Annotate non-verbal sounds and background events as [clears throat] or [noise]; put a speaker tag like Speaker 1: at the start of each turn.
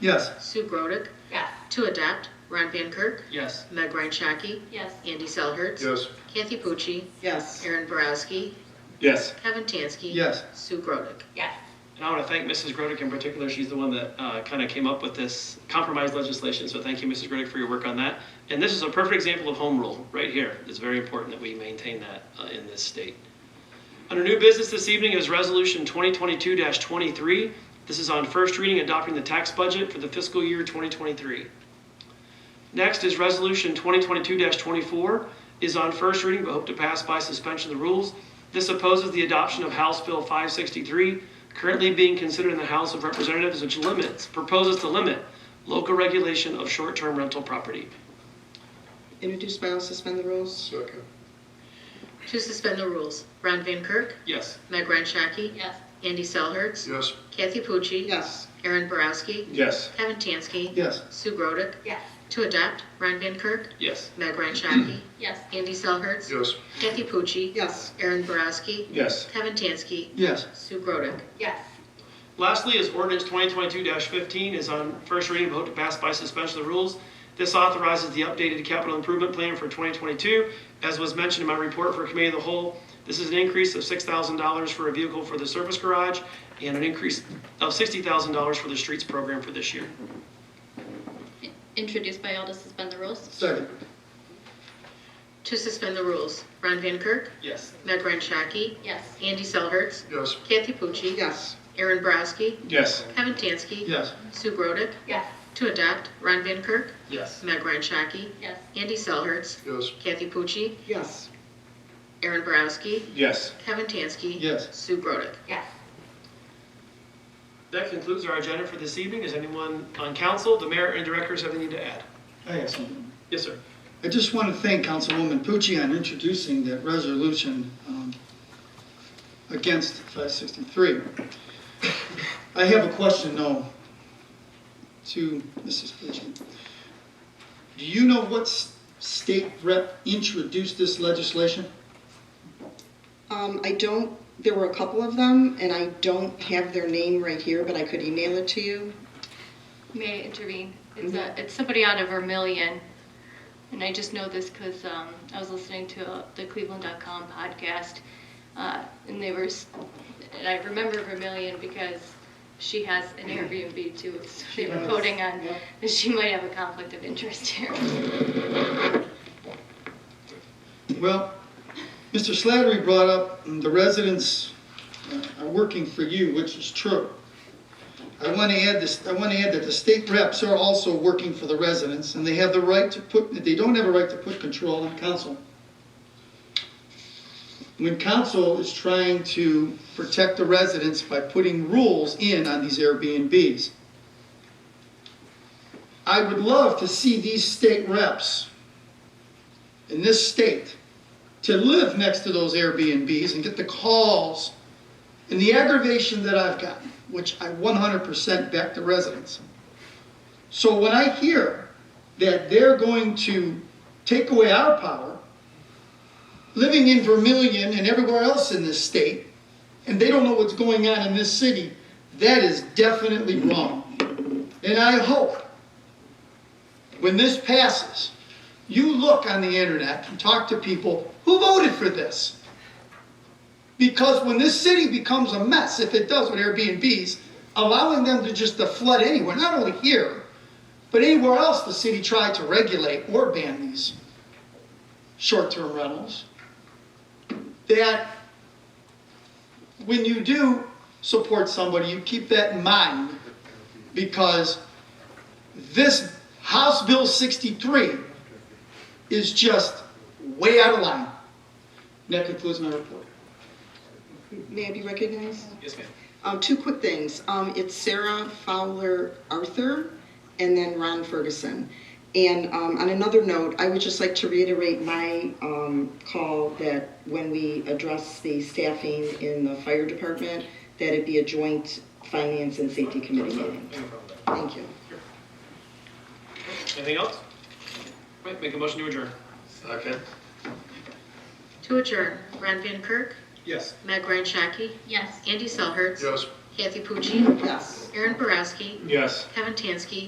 Speaker 1: Yes.
Speaker 2: Sue Grodick,
Speaker 3: Yes.
Speaker 2: to adopt Ron Van Kirk,
Speaker 4: Yes.
Speaker 2: Meg Ryan Shaki,
Speaker 3: Yes.
Speaker 2: Andy Selhertz.
Speaker 1: Yes.
Speaker 2: Kathy Pucci,
Speaker 5: yes,
Speaker 2: Aaron Borowski,
Speaker 4: Yes.
Speaker 2: Kevin Tansky.
Speaker 1: Yes.
Speaker 2: Sue Grodick.
Speaker 3: Yes.
Speaker 4: And I want to thank Mrs. Grodick in particular. She's the one that uh, kind of came up with this compromise legislation. So thank you, Mrs. Grodick, for your work on that. And this is a perfect example of home rule right here. It's very important that we maintain that uh, in this state. Under new business this evening is Resolution 2022-23. This is on first reading adopting the tax budget for the fiscal year 2023. Next is Resolution 2022-24 is on first reading but hope to pass by suspension of the rules. This opposes the adoption of House Bill 563, currently being considered in the House of Representatives, which limits, proposes to limit local regulation of short-term rental property.
Speaker 5: introduced by all, suspend the rules,
Speaker 1: Second.
Speaker 2: To suspend the rules, Ron Van Kirk,
Speaker 4: Yes.
Speaker 2: Meg Ryan Shaki,
Speaker 3: Yes.
Speaker 2: Andy Selhertz,
Speaker 1: Yes.
Speaker 2: Kathy Pucci,
Speaker 5: yes,
Speaker 2: Aaron Borowski,
Speaker 1: Yes.
Speaker 2: Kevin Tansky,
Speaker 1: Yes.
Speaker 2: Sue Grodick,
Speaker 3: Yes.
Speaker 2: to adopt Ron Van Kirk,
Speaker 4: Yes.
Speaker 2: Meg
Speaker 1: [clears throat]
Speaker 2: Ryan Shaki,
Speaker 3: Yes.
Speaker 2: Andy Selhertz,
Speaker 1: Yes.
Speaker 2: Kathy Pucci,
Speaker 5: yes,
Speaker 2: Aaron Borowski,
Speaker 1: Yes.
Speaker 2: Kevin Tansky,
Speaker 1: Yes.
Speaker 2: Sue Grodick.
Speaker 3: Yes.
Speaker 4: Lastly is ordinance 2022-15 is on first reading, vote to pass by suspension of the rules. This authorizes the updated capital improvement plan for 2022. As was mentioned in my report for committee of the whole, this is an increase of $6,000 for a vehicle for the service garage and an increase of $60,000 for the streets program for this year.
Speaker 3: Introduced by all to suspend the rules?
Speaker 1: Second.
Speaker 2: To suspend the rules, Ron Van Kirk,
Speaker 4: Yes.
Speaker 2: Meg Ryan Shaki,
Speaker 3: Yes.
Speaker 2: Andy Selhertz,
Speaker 1: Yes.
Speaker 2: Kathy Pucci,
Speaker 5: yes,
Speaker 2: Aaron Borowski,
Speaker 1: Yes.
Speaker 2: Kevin Tansky,
Speaker 1: Yes.
Speaker 2: Sue Grodick,
Speaker 3: Yes.
Speaker 2: to adopt Ron Van Kirk,
Speaker 4: Yes.
Speaker 2: Meg Ryan Shaki,
Speaker 3: Yes.
Speaker 2: Andy Selhertz,
Speaker 1: Yes.
Speaker 2: Kathy Pucci,
Speaker 5: yes,
Speaker 2: Aaron Borowski,
Speaker 1: Yes.
Speaker 2: Kevin Tansky,
Speaker 1: Yes.
Speaker 2: Sue Grodick.
Speaker 3: Yes.
Speaker 4: That concludes our agenda for this evening. Is anyone on council, the mayor and directors have anything to add?
Speaker 6: I have something.
Speaker 4: Yes, sir.
Speaker 6: I just want to thank Councilwoman Pucci on introducing that resolution um, against 563. I have a question, though, to Mrs. Pucci. Do you know what s- state rep introduced this legislation?
Speaker 5: um, I don't, there were a couple of them, and I don't have their name right here, but I could email it to you,
Speaker 7: May I intervene? It's, a, it's somebody out of Vermillion. And I just know this because um, I was listening to uh, the Cleveland.com podcast. Uh, and they were, s- and I remember Vermillion because she has an Airbnb too. So they were voting on, that she might have a conflict of interest here.
Speaker 6: Well, Mr. Slattery brought up mm, the residents uh, are working for you, which is true. I want to add this, I want to add that the state reps are also working for the residents, and they have the right to put, they don't have a right to put control on council. When council is trying to protect the residents by putting rules in on these Airbnbs, I would love to see these state reps in this state to live next to those Airbnbs and get the calls and the aggravation that I've gotten, which I 100% back to residents. So when I hear that they're going to take away our power, living in Vermillion and everywhere else in this state, and they don't know what's going on in this city, that is definitely wrong. And I hope when this passes, you look on the internet and talk to people who voted for this. Because when this city becomes a mess, if it does with Airbnbs, allowing them to just to flood anywhere, not only here, but anywhere else the city tried to regulate or ban these short-term rentals, that when you do support somebody, you keep that in mind because this House Bill 63 is just way out of line. And that concludes my report.
Speaker 5: may I be recognized?
Speaker 4: Yes, ma'am.
Speaker 5: Um, two quick things. Um, it's Sarah Fowler Arthur and then Ron Ferguson. And um, on another note, I would just like to reiterate my um, call that when we address the staffing in the fire department, that it be a joint finance and safety committee meeting.
Speaker 4: No problem.
Speaker 5: Thank you.
Speaker 4: Anything else? Right, make a motion to adjourn.
Speaker 1: Second.
Speaker 2: To adjourn, Ron Van Kirk,
Speaker 4: Yes.
Speaker 2: Meg Ryan Shaki,
Speaker 3: Yes.
Speaker 2: Andy Selhertz,
Speaker 1: Yes.
Speaker 2: Kathy Pucci,
Speaker 8: Yes.
Speaker 2: Aaron Borowski,
Speaker 5: Yes.
Speaker 2: Kevin Tansky,